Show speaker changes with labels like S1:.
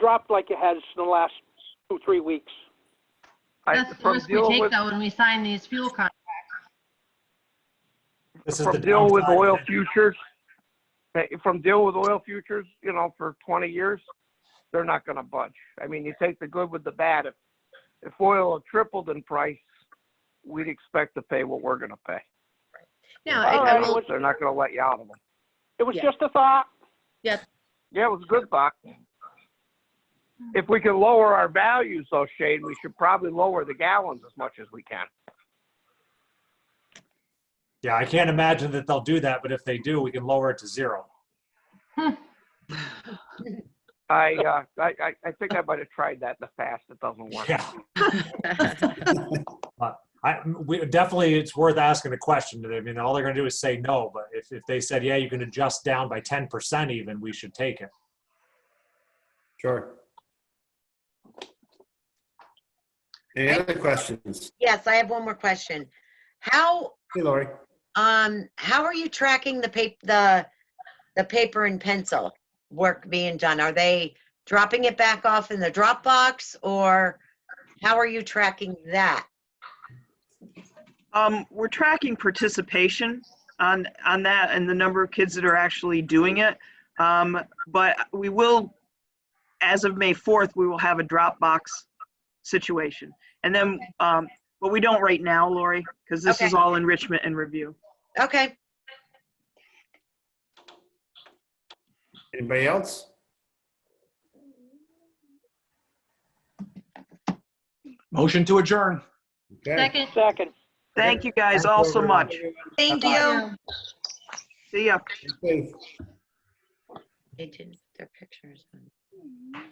S1: dropped like it has in the last two, three weeks.
S2: I-
S3: That's the
S2: From
S3: risk we
S2: dealing
S3: take
S2: with,
S3: though when we sign these fuel contracts.
S4: This is the
S2: from dealing with
S4: downside.
S2: oil futures, eh, from dealing with oil futures, you know, for 20 years, they're not going to budge. I mean, you take the good with the bad. If, if oil had tripled in price, we'd expect to pay what we're going to pay.
S5: No,
S1: All
S5: I- I
S1: right,
S5: will-
S1: well-
S2: They're not going to let you out of them.
S1: It was
S5: Yeah.
S1: just a thought.
S2: Yeah, it was a good buck.
S3: Mm-hmm.
S2: If we can lower our values though, Shane, we should probably lower the gallons as much as we can.
S4: Yeah, I can't imagine that they'll do that, but if they do, we can lower it to zero.
S2: I, uh, I, I- I think I might have tried that in the past. It doesn't work.
S4: Yeah, I, we, definitely it's worth asking the question. I mean, all they're gonna do is say no, but if, if they said, yeah, you can adjust down by ten percent even, we should take it.
S6: Sure. Any other questions?
S5: Yes, I have one more question. How,
S6: Hey, Lori.
S5: um, how are you tracking the pap, the, the paper and pencil work being done? Are they dropping it back off in the Dropbox or how are you tracking that?
S7: Um, we're tracking participation on, on that and the number of kids that are actually doing it. Um, but we will, as of May 4th, we will have a Dropbox situation. And then, um, but we don't right now, Lori, because this is
S5: Okay.
S7: all enrichment and review.
S5: Okay,
S6: Anybody else?
S8: Motion to adjourn.
S6: Okay.
S3: Second,
S1: Second.
S7: Thank you guys all so much.
S5: thank
S3: yeah.
S5: you.
S7: See ya.
S6: Thanks.
S5: They didn't, their pictures.